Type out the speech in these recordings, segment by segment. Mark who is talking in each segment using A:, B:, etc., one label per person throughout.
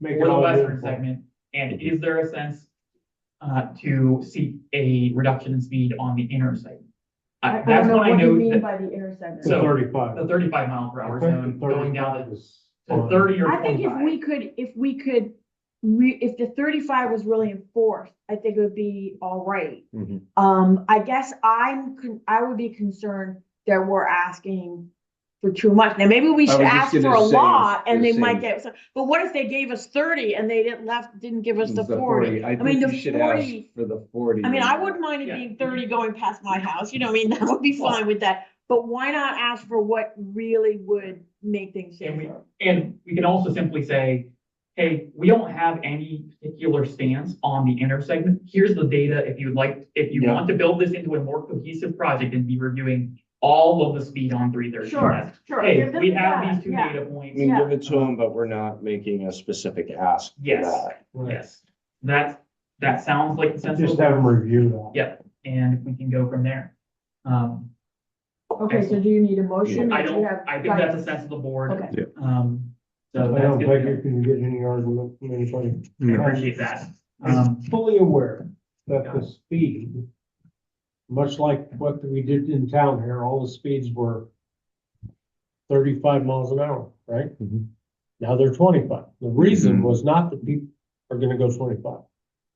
A: Make it
B: for the
A: all
B: western
A: uniform.
B: segment? And is there a sense uh, to seek a reduction in speed on the inner segment?
C: I
B: Uh,
C: I
B: That's
C: don't know
B: when I
C: what you
B: know
C: mean
B: that
C: by the inner segment.
A: To
B: So-
A: thirty-five.
B: the thirty-five mile per
A: I
B: hour
A: think the
B: zone going down
A: 35 is
B: to- to
A: fine.
B: thirty or
C: I think if
B: twenty-five.
C: we could, if we could, re, if the thirty-five was really enforced, I think it would be all right.
D: Mhm.
C: Um, I guess I'm, con- I would be concerned that we're asking for too much. Now, maybe we
D: I
C: should
D: was just
C: ask for
D: gonna
C: a
D: say-
C: lot and they
D: gonna
C: might
D: say-
C: get, some- but what if they gave us thirty and they didn't left, didn't give us the forty?
D: I
C: mean,
D: think
C: the
D: you should ask
C: 40
D: for the forty.
C: I mean, I wouldn't mind it
B: Yeah.
C: being thirty going past my house, you know, I mean, that would be
B: Well-
C: fine with that. But why not ask for what really would make things
B: And we-
C: safer?
B: And we can also simply say, hey, we don't have any particular stance on the inner segment. Here's the data if you'd like, if you
D: Yeah.
B: want to build this into a more cohesive project and be reviewing all of the speed on three thirty.
C: Sure, sure.
B: Hey,
C: give them
B: we have
C: that,
B: these two
C: yeah.
B: data
D: I
B: points.
D: mean,
C: Yeah.
D: give it to them, but we're not making a specific ask. for
B: Yes.
D: that.
A: Right.
B: Yes, that, that sounds like
A: Just have them
B: sensible,
A: review that.
B: Yeah. and we can go from there. Um,
C: Okay, so do you need a motion?
B: I
C: or do you
B: don't,
C: have
B: I think that's a
C: guidance?
B: sense of the board.
C: Okay.
B: Um,
A: I
B: so that's
A: don't think you
B: good.
A: can get any argument from anybody.
B: I appreciate that. Um,
A: I'm fully aware that the speed, much like what we did in town here, all the speeds were thirty-five miles an hour, right?
D: Mhm.
A: Now they're twenty-five. The reason
D: Mhm.
A: was not that people are gonna go twenty-five,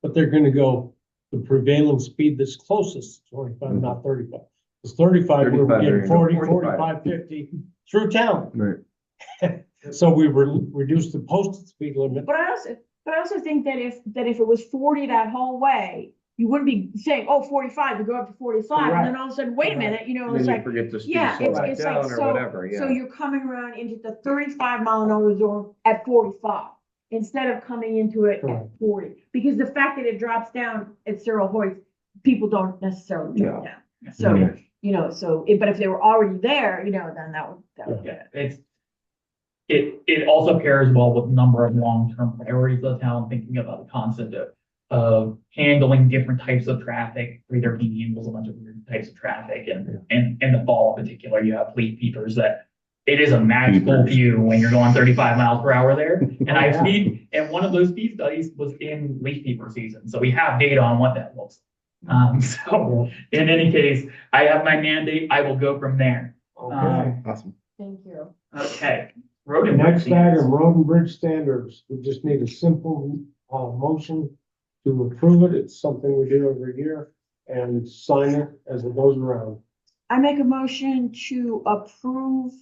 A: but they're gonna go the prevailing speed that's closest, to twenty-five,
D: Mhm.
A: not thirty-five. It's thirty-five, we were
D: 35, there
A: getting
D: you go,
A: 40, 45, 50
D: 45.
A: through town.
D: Right.
A: So we re- reduced the posted speed limit.
C: But I also, but I also think that if, that if it was forty that whole way, you wouldn't be saying, oh, 45, you go up to forty-five, and then all of a sudden, wait a
A: Correct.
C: minute, you know,
D: Then
C: it's
D: you
C: like,
D: forget to speed
C: yeah, it's,
D: back
C: it's like,
D: down or
C: so,
D: whatever,
C: so
D: yeah.
C: you're coming around into the thirty-five mile an hour zone at forty-five, instead of coming into it at
A: Correct.
C: forty, because the fact that it drops down at Cyril Hoyt, people don't necessarily drop down. So,
D: Yeah.
C: you know, so, it- but if they were already there, you know, then that would, that would.
B: yeah, it's, it, it also pairs well with a number of long-term priorities of the town, thinking about the concept of, of handling different types of traffic. Three thirteen handles a bunch of weird types of traffic and, and, and the fall in particular, you have fleet peepers that it is a magical
D: Peepers.
B: view when you're going thirty-five miles per hour there. And
A: Oh,
B: I've
A: yeah.
B: seen, and one of those speed studies was in leaf peeper season, so we have data on what that looks. like. Um, so in any case, I have my mandate, I will go from there.
A: Okay.
D: Awesome.
C: Thank you.
B: Okay. Road and
A: Next
B: bridge standards.
A: item, road and bridge standards. We just need a simple, uh, motion to approve it. It's something we do every year and sign it as it goes around.
C: I make a motion to approve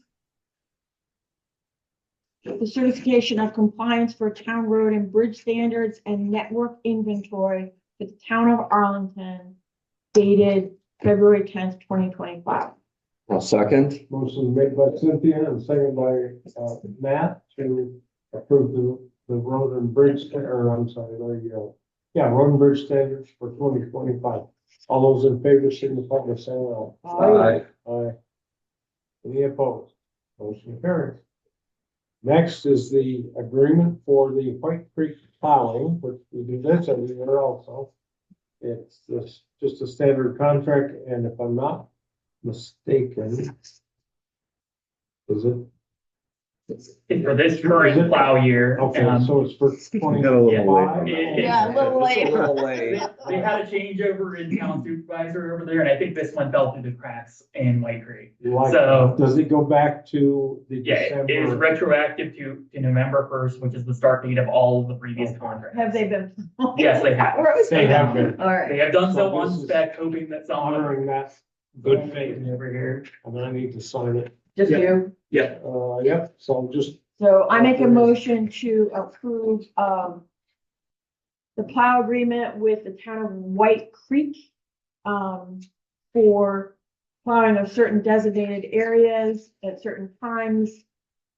C: the certification of compliance for town road and bridge standards and network inventory for the town of Arlington dated February tenth, twenty twenty-five.
D: I'll second.
A: Motion made by Cynthia and second by, uh, Matt to approve the, the road and bridge, sta- or I'm sorry, there you go. Yeah, road and bridge standards for twenty twenty-five. All those in favor signify by saying aye.
D: Aye.
A: Aye. Any opposed? Motion carries. Next is the agreement for the White Creek filing, which we do this every year also. It's just, just a standard contract, and if I'm not mistaken, is it?
B: It's For this current plow year,
A: Okay,
B: um,
A: so it's for twenty.
C: Yeah, a little
D: It's
C: late.
D: A little
B: they
D: late.
B: they had a changeover in town supervisor over there, and I think this one fell through the cracks in White Creek.
A: You like
B: So-
A: it? Does it go back to the
B: Yeah, it is
A: December?
B: retroactive to, to November first, which is the start date of all of the previous contracts.
C: Have they been?
B: Yes, they have.
C: Where was
A: They
C: that?
A: have been
C: All right.
B: They have done so
A: So this
B: on
A: is
B: spec, hoping that someone.
A: honoring that good faith,
B: Over here.
A: and I need to sign it.
C: Just
B: Yeah.
C: you?
A: Uh, yep, so just
C: So I make a
A: Authorized.
C: motion to approve, um, the plow agreement with the town of White Creek, um, for plowing of certain designated areas at certain times,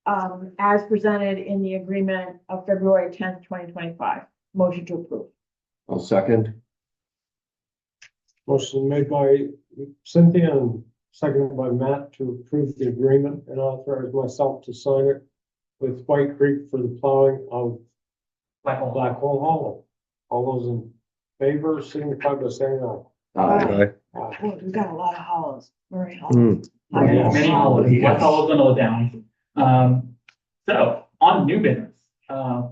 C: um, as presented in the agreement of February tenth, twenty twenty-five. Motion to approve.
D: I'll second.
A: Motion made by Cynthia and seconded by Matt to approve the agreement and authorize myself to sign it with White Creek for the plowing of
B: Black hole.
A: Black Hole Hollow. All those in favor, signify by saying aye.
C: Aye.
A: aye.
C: Boy, We've got a lot of hollows, Murray
D: Hmm.
C: Hollow.
A: Yeah.
B: Many holidays, my fellow gonna down. Um, so on new business, uh,